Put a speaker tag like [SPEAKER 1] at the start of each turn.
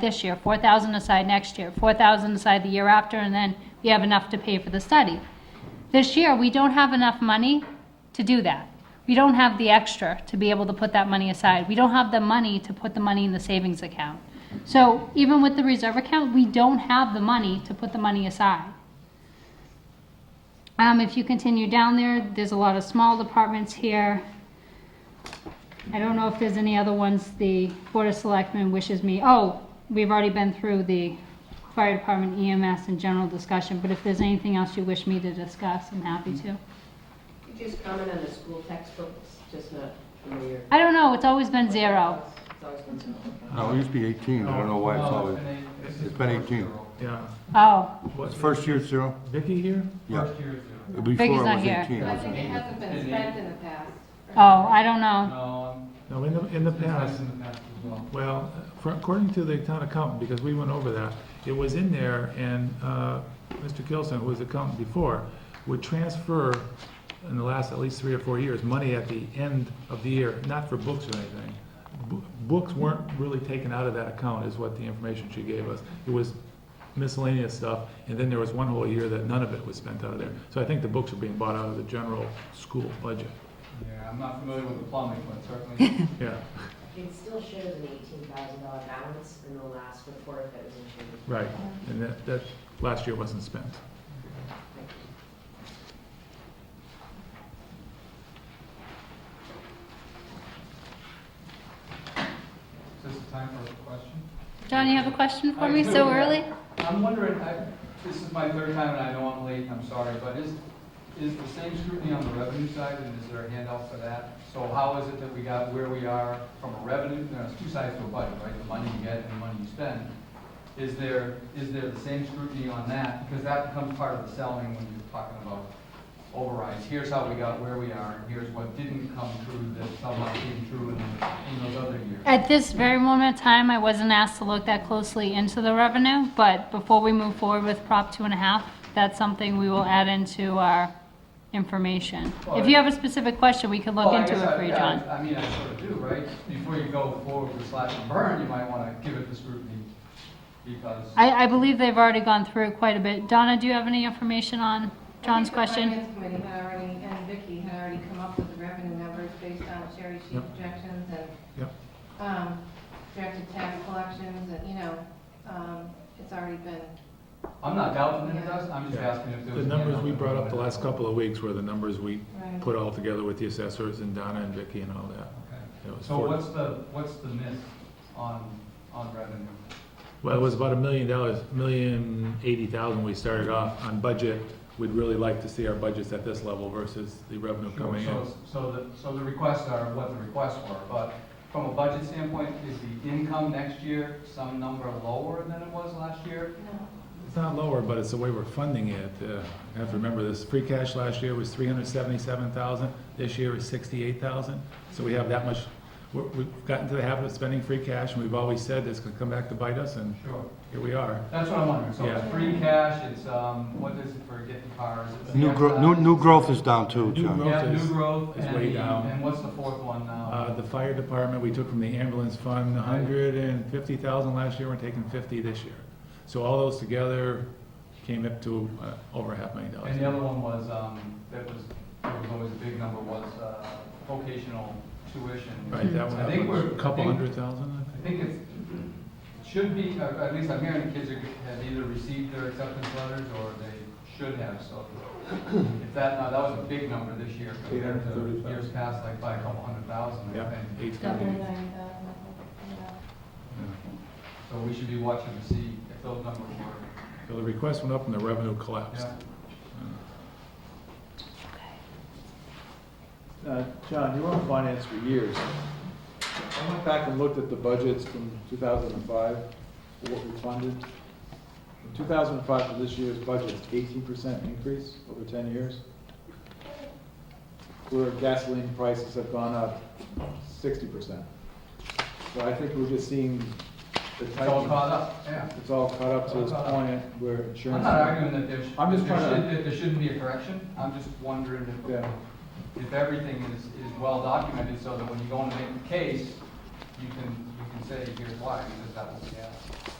[SPEAKER 1] this year, 4,000 aside next year, 4,000 aside the year after, and then you have enough to pay for the study. This year, we don't have enough money to do that. We don't have the extra to be able to put that money aside. We don't have the money to put the money in the savings account. So even with the reserve account, we don't have the money to put the money aside. Um, if you continue down there, there's a lot of small departments here. I don't know if there's any other ones the Board of Selectmen wishes me, oh, we've already been through the fire department EMS and general discussion, but if there's anything else you wish me to discuss, I'm happy to.
[SPEAKER 2] Could you just comment on the school textbooks, just not familiar?
[SPEAKER 1] I don't know, it's always been zero.
[SPEAKER 2] It's always been zero.
[SPEAKER 3] No, it used to be 18, I don't know why it's always, it's been 18.
[SPEAKER 4] Yeah.
[SPEAKER 1] Oh,
[SPEAKER 3] Was first year zero?
[SPEAKER 4] Vicky here?
[SPEAKER 3] Yeah.
[SPEAKER 5] First year is zero.
[SPEAKER 3] Before it
[SPEAKER 1] Vicky's not
[SPEAKER 3] was
[SPEAKER 1] here.
[SPEAKER 3] 18.
[SPEAKER 2] I
[SPEAKER 3] wasn't
[SPEAKER 2] think
[SPEAKER 3] it?
[SPEAKER 2] it hasn't been spent in the past.
[SPEAKER 1] oh, I don't know.
[SPEAKER 5] No,
[SPEAKER 4] No, in the, in
[SPEAKER 5] um,
[SPEAKER 4] the
[SPEAKER 5] it's been
[SPEAKER 4] past,
[SPEAKER 5] in the past as well.
[SPEAKER 4] well, for- according to the town accountant, because we went over that, it was in there, and uh, Mr. Gilson, who was accountant before, would transfer in the last at least three or four years, money at the end of the year, not for books or anything. Bo- Books weren't really taken out of that account, is what the information she gave us. It was miscellaneous stuff, and then there was one whole year that none of it was spent out of there. So I think the books are being bought out of the general school budget,
[SPEAKER 5] Yeah, I'm not familiar with the plumbing, but certainly,
[SPEAKER 4] yeah.
[SPEAKER 6] It still shows an eighteen thousand dollar balance in the last report that was issued.
[SPEAKER 4] Right, and that, that last year wasn't spent.
[SPEAKER 5] is this the time for a question?
[SPEAKER 1] John, you have a question for
[SPEAKER 5] I
[SPEAKER 1] me
[SPEAKER 5] do,
[SPEAKER 1] so
[SPEAKER 5] yeah.
[SPEAKER 1] early?
[SPEAKER 5] I'm wondering, I, this is my third time and I know I'm late, I'm sorry, but is, is the same scrutiny on the revenue side and is there a handout for that? So how is it that we got where we are from a revenue, there's two sides to a budget, right? The money you get and the money you spend. Is there, is there the same scrutiny on that? Because that becomes part of the selling when you're talking about overrides. Here's how we got where we are and here's what didn't come true that somehow came true in, in those other years.
[SPEAKER 1] At this very moment in time, I wasn't asked to look that closely into the revenue, but before we move forward with Prop two and a half, that's something we will add into our information. If you have a specific question, we could look
[SPEAKER 5] Well, Oh, I
[SPEAKER 1] into
[SPEAKER 5] guess
[SPEAKER 1] it
[SPEAKER 5] I-
[SPEAKER 1] for you,
[SPEAKER 5] yeah,
[SPEAKER 1] John.
[SPEAKER 5] I mean, I sort of do, right? Before you go forward with slash and burn, you might want to give it the scrutiny because,
[SPEAKER 1] I, I believe they've already gone through quite a bit. Donna, do you have any information on John's
[SPEAKER 2] I
[SPEAKER 1] question?
[SPEAKER 2] think the finance committee had already, and Vicky had already come up with the revenue numbers based on cherry sheet
[SPEAKER 4] Yep.
[SPEAKER 2] projections and,
[SPEAKER 4] Yep.
[SPEAKER 2] um, directed tax collections, and, you know, um, it's already been,
[SPEAKER 5] I'm not doubting that it does, I'm just
[SPEAKER 4] Yeah.
[SPEAKER 5] asking if there
[SPEAKER 4] The
[SPEAKER 5] was. a
[SPEAKER 4] numbers we
[SPEAKER 5] handout.
[SPEAKER 4] brought up the last couple of weeks were the numbers we
[SPEAKER 2] right.
[SPEAKER 4] put all together with the assessors and Donna and Vicky and all that.
[SPEAKER 5] Okay.
[SPEAKER 4] It was
[SPEAKER 5] So
[SPEAKER 4] four-
[SPEAKER 5] what's the, what's the miss on, on revenue?
[SPEAKER 4] Well, it was about a million dollars, million eighty thousand we started off on budget. We'd really like to see our budgets at this level versus the revenue coming
[SPEAKER 5] Sure,
[SPEAKER 4] in.
[SPEAKER 5] so- So the, so the requests are what the requests were, but from a budget standpoint, is the income next year some number lower than it was last year?
[SPEAKER 2] No.
[SPEAKER 4] It's not lower, but it's the way we're funding it. Uh, I have to remember this, free cash last year was three hundred seventy-seven thousand, this year is sixty-eight thousand. So we have that much, we're- we've gotten to the habit of spending free cash, and we've always said it's gonna come back to bite us, and
[SPEAKER 5] Sure.
[SPEAKER 4] here we are.
[SPEAKER 5] That's what I'm wondering, so
[SPEAKER 4] Yeah.
[SPEAKER 5] it's free cash, it's, um, what is it for getting cars? It's
[SPEAKER 3] New, gro- new, new growth is down too,
[SPEAKER 4] New
[SPEAKER 3] John.
[SPEAKER 4] growth.
[SPEAKER 5] Yeah, new
[SPEAKER 4] is-
[SPEAKER 5] growth,
[SPEAKER 4] is
[SPEAKER 5] and
[SPEAKER 4] way
[SPEAKER 5] the-
[SPEAKER 4] down.
[SPEAKER 5] and what's the fourth one now?
[SPEAKER 4] Uh, The fire department, we took from the ambulance fund, a hundred and fifty thousand last year, we're taking fifty this year. So all those together came up to uh, over half million dollars.
[SPEAKER 5] And the other one was, um, that was, that was always a big number, was, uh, vocational tuition.
[SPEAKER 4] Right, that
[SPEAKER 5] I think
[SPEAKER 4] one, was a
[SPEAKER 5] we're-
[SPEAKER 4] couple
[SPEAKER 5] I think-
[SPEAKER 4] hundred thousand, I
[SPEAKER 5] I
[SPEAKER 4] think.
[SPEAKER 5] think it's, it should be, or at least I'm hearing the kids are- have either received their acceptance letters or they should have, so. If that, now, that was a big number this year compared to
[SPEAKER 4] 830,000.
[SPEAKER 5] years past, like by a couple hundred thousand, I
[SPEAKER 4] Yeah,
[SPEAKER 5] think.
[SPEAKER 4] eight
[SPEAKER 2] Double
[SPEAKER 4] hundred.
[SPEAKER 2] nine uh, thousand, I think,
[SPEAKER 4] Yeah.
[SPEAKER 5] So we should be watching to see if those numbers were,
[SPEAKER 4] So the request went up and the revenue collapsed.
[SPEAKER 5] yeah.
[SPEAKER 7] Uh, John, you were on finance for years. I went back and looked at the budgets from 2005, what we funded. From 2005 to this year's budget, 18% increase over 10 years. Where gasoline prices have gone up 60%. So I think we're just seeing the
[SPEAKER 5] It's
[SPEAKER 7] type
[SPEAKER 5] all caught
[SPEAKER 7] of,
[SPEAKER 5] up, yeah.
[SPEAKER 7] it's all caught up to this
[SPEAKER 5] It's all caught
[SPEAKER 7] point where
[SPEAKER 5] I'm
[SPEAKER 7] insurance.
[SPEAKER 5] not arguing that there should,
[SPEAKER 7] I'm just
[SPEAKER 5] there
[SPEAKER 7] trying to-
[SPEAKER 5] should- that there shouldn't be a correction, I'm just wondering if,
[SPEAKER 7] Yeah.
[SPEAKER 5] if everything is, is well documented, so that when you go in and make the case, you can, you can say, here's why, because that will be asked.